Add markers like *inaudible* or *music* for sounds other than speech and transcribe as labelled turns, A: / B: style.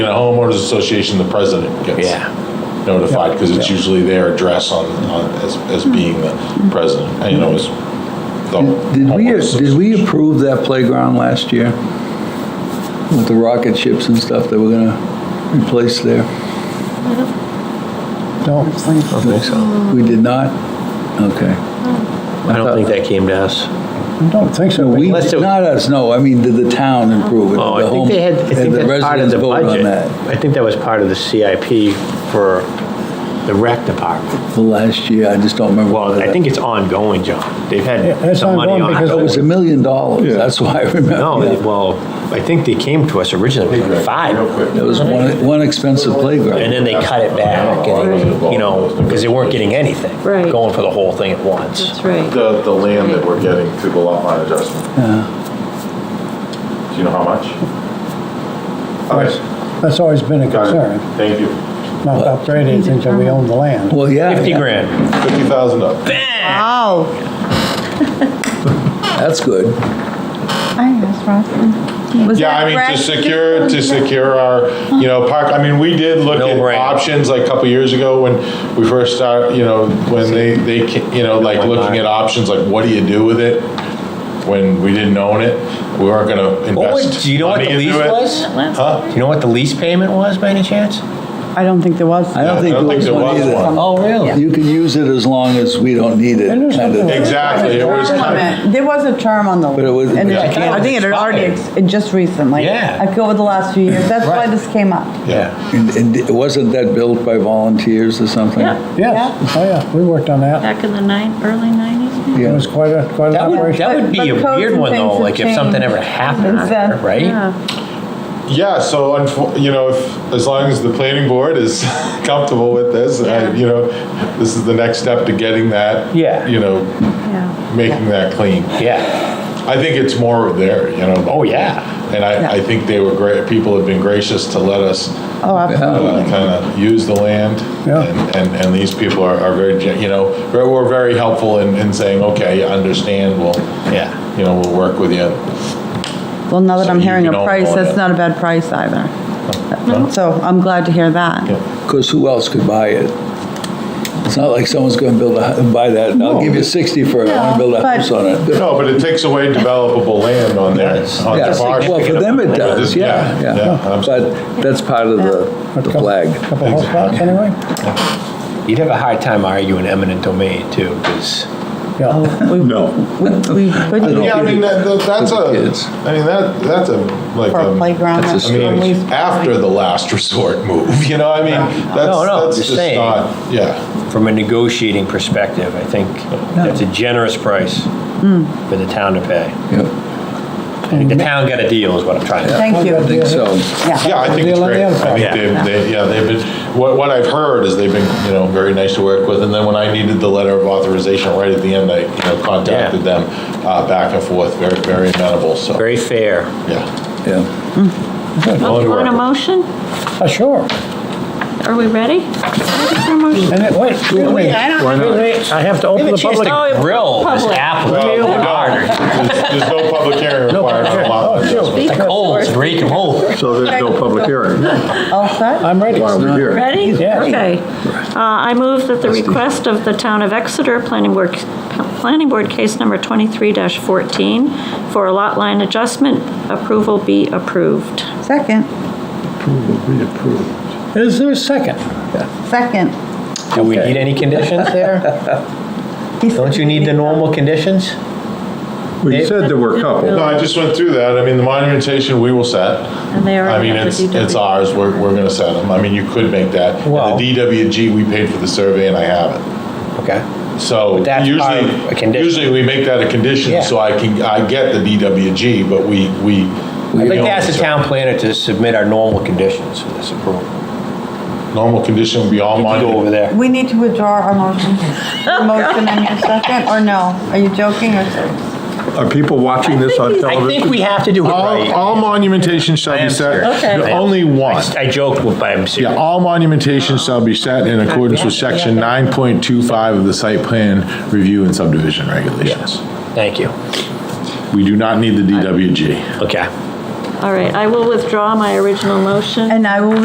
A: The homeowners association, the president gets
B: Yeah.
A: notified, because it's usually their address on, on, as, as
C: Hmm.
A: being the president, you know, as. the
C: Did we, uh,
A: homeowners
C: did we approve that playground last year? With the rocket ships and stuff that we're gonna replace there?
B: I
D: No,
B: don't think so.
C: We did not? Okay.
B: I don't think that came to us.
D: I don't think so.
C: We,
B: Unless it-
C: not us, no, I mean, did the town improve it?
B: Oh, I
C: The
B: think
C: home-
B: they had, I think
C: and the
B: that's part of
C: residents
B: the
C: vote on
B: budget.
C: that
B: I think that was part of the CIP for the rec department.
C: for last year, I just don't remember.
B: Well, I think it's ongoing, John. They've
D: Yeah,
B: had
D: it's
B: some money
D: ongoing
B: on
D: because
C: It was
B: it.
C: a million dollars, that's why I remember.
B: No, they- well, I think they came to us originally with like
A: Real
B: five,
A: quick.
C: It was one, one expensive
B: and
C: playground.
B: then they cut it back, and, you know, because they weren't getting anything.
E: Right.
B: Going for the whole thing at once.
E: That's right.
A: The, the land that we're getting through the lot line adjustment,
C: Uh.
A: do you know how much?
D: That's that's always been a
A: Got it.
D: concern,
A: Thank you.
D: not to upgrade anything until we own the land.
C: Well, yeah.
B: 50
C: yeah,
B: grand.
A: Fifty thousand up.
E: Wow.
C: That's good.
F: I asked Ross. Was
A: Yeah,
F: that
A: I mean, uh,
F: correct?
A: to secure, to secure our, you know, park, I mean, we did look
B: No
A: at
B: brainer.
A: options like a couple years ago when we first started, you know, when they, they, ca- you know, like looking at options, like what do you do with it? When we didn't own it, we weren't gonna
B: What would-
A: invest.
B: do you know what
A: money
B: the
A: into
B: lease
A: it.
B: was?
A: Huh?
B: Do you know what the lease payment was by any chance?
G: I don't think there was.
C: I don't think
A: I
C: there
A: don't think
C: was
A: there
C: one
A: was
C: either.
A: one.
B: Oh, really?
C: You can use it as long as we don't need it,
D: And there's
C: kind of.
D: something-
A: Exactly, it was kind of.
G: There was a term on the.
C: But it was-
G: and
C: Yeah,
B: I thought it
G: I think
B: was
G: it had already,
B: expired.
G: ex- it just recently.
B: Yeah.
G: I feel over the last few years, that's why this came up.
B: Yeah.
C: And- And it wasn't that built by volunteers or something?
E: Yeah,
D: Yes, oh yeah, we worked on that.
E: back in the nine, early 90s. maybe?
D: It was quite a, quite an
B: That would,
D: operation.
B: that would be
G: But-
B: a
G: but codes
B: weird
G: and
B: one though,
G: things
B: like
G: have
B: if something ever
G: changed.
B: happened,
G: Exactly.
B: right?
E: Yeah.
A: Yeah, so, unfo- you know, if, as long as the planning board is *laughs* comfortable with this, I- you know, this is the next step to getting that.
B: Yeah.
A: You know, making that clean.
B: Yeah.
A: I think it's more there, you know.
B: Oh, yeah.
A: And I, I think they were great, people have been gracious to let us
G: Oh, absolutely.
A: kind of use the land.
D: Yeah.
A: And, and- and these people are, are very, gen- you know, very- were very helpful in, in saying, okay, I understand, we'll,
B: Yeah.
A: you know, we'll work with you.
G: Well, now that
A: So
G: I'm
A: you
G: hearing
A: can
G: a
A: all
G: price,
A: go
G: that's
A: in.
G: not a bad price either. Uh, So I'm glad to hear
A: Yeah.
G: that.
C: Because who else could buy it? It's not like someone's going to build a, hu- buy that, I'll give you 60 for it, I want to
G: No,
C: build a
G: but-
C: house on it.
A: No, Oh, but it takes away developable land on their, on
C: Yeah,
A: their parcel.
C: well, for them it does, yeah,
A: Yeah, yeah,
C: yeah.
A: absolutely.
C: But that's part of the, the flag.
D: Couple horse blocks anyway?
B: You'd have a hard time arguing eminent domain too, because
D: Yeah,
G: Oh. No. We, we couldn't
A: Yeah, I mean, that, that- that's a,
C: For the kids.
A: I mean, that, that's a, like,
G: for a
A: um,
G: playground.
C: That's a
G: that's
A: I
G: when we-
A: mean, after the last *laughs* resort move, you know, I mean, that's,
B: No, no,
A: that's
B: just
A: just
B: saying.
A: not, yeah.
B: from a negotiating perspective, I think that's a generous price for the town to pay.
C: Yeah,
B: I think the town got a deal is what I'm trying to say.
G: Thank
C: I
G: you.
C: think so.
A: Yeah, I think it's
D: Deal on the
A: great.
D: other
A: I
D: side.
A: think they've, they, yeah, they've been, what, what I've heard is they've been, you know, very nice to work with. And then when I needed the letter of authorization right at the end, I, you know, contacted them, uh, back and forth, very, very amenable, so,
B: Very fair.
A: yeah.
C: Yeah,
A: Willing to work
E: On a
A: with.
E: motion?
D: Uh, sure.
E: Are we ready? Ready for a motion?
D: And it, wait, excuse me. Wait, wait, I have to open the public.
B: Grill this apple.
A: Well,
B: Real
A: we don't.
B: hard.
A: There's there's no public hearing required on a lot
D: Oh,
A: line adjustment.
D: shoot.
B: It's cold, it's reeking cold.
H: So there's no public hearing
G: All set?
D: I'm ready.
H: while we're here.
E: Ready?
D: Yeah.
E: Okay. Uh, I move that the request of the Town of Exeter Planning Board, Planning Board Case Number 23-14 for a lot line adjustment approval be approved.
G: Second,
D: Is there a second?
G: second.
B: Do we need any conditions *laughs* there? Don't you need the normal conditions?
H: We said there were a couple.
A: No, I just went through that. I mean, the monumentation, we will set.
E: And they are.
A: I mean, it's, it's ours, we're, we're gonna set them. I mean, you could make that. And
B: Well-
A: The DWG, we paid for the survey and I have it.
B: Okay.
A: So
B: But that's part of a
A: usually,
B: condition.
A: usually we make that a
B: Yeah.
A: condition, so I can, I get the DWG, but we, we.
B: I'd like to ask the town planner to submit our normal conditions for this approval.
A: Normal condition would be all
B: You can go over
A: monument.
B: there.
G: We need to withdraw our motion. Your Motion and your second, or no? Are you joking or serious?
H: Are people watching this on
B: I think
H: television?
B: we have to do it
A: All,
B: right.
A: all monumentation shall
B: I
A: be
B: am
A: set.
B: serious.
E: Okay.
A: No, Only one.
B: I joked, with- but I'm
A: Yeah,
B: serious.
A: all monumentation shall be set in accordance with section nine point two five of the site plan review and subdivision regulations.
B: Thank you.
A: We do not need the DWG.
B: Okay.
E: All right, I will withdraw my original motion.
G: And I will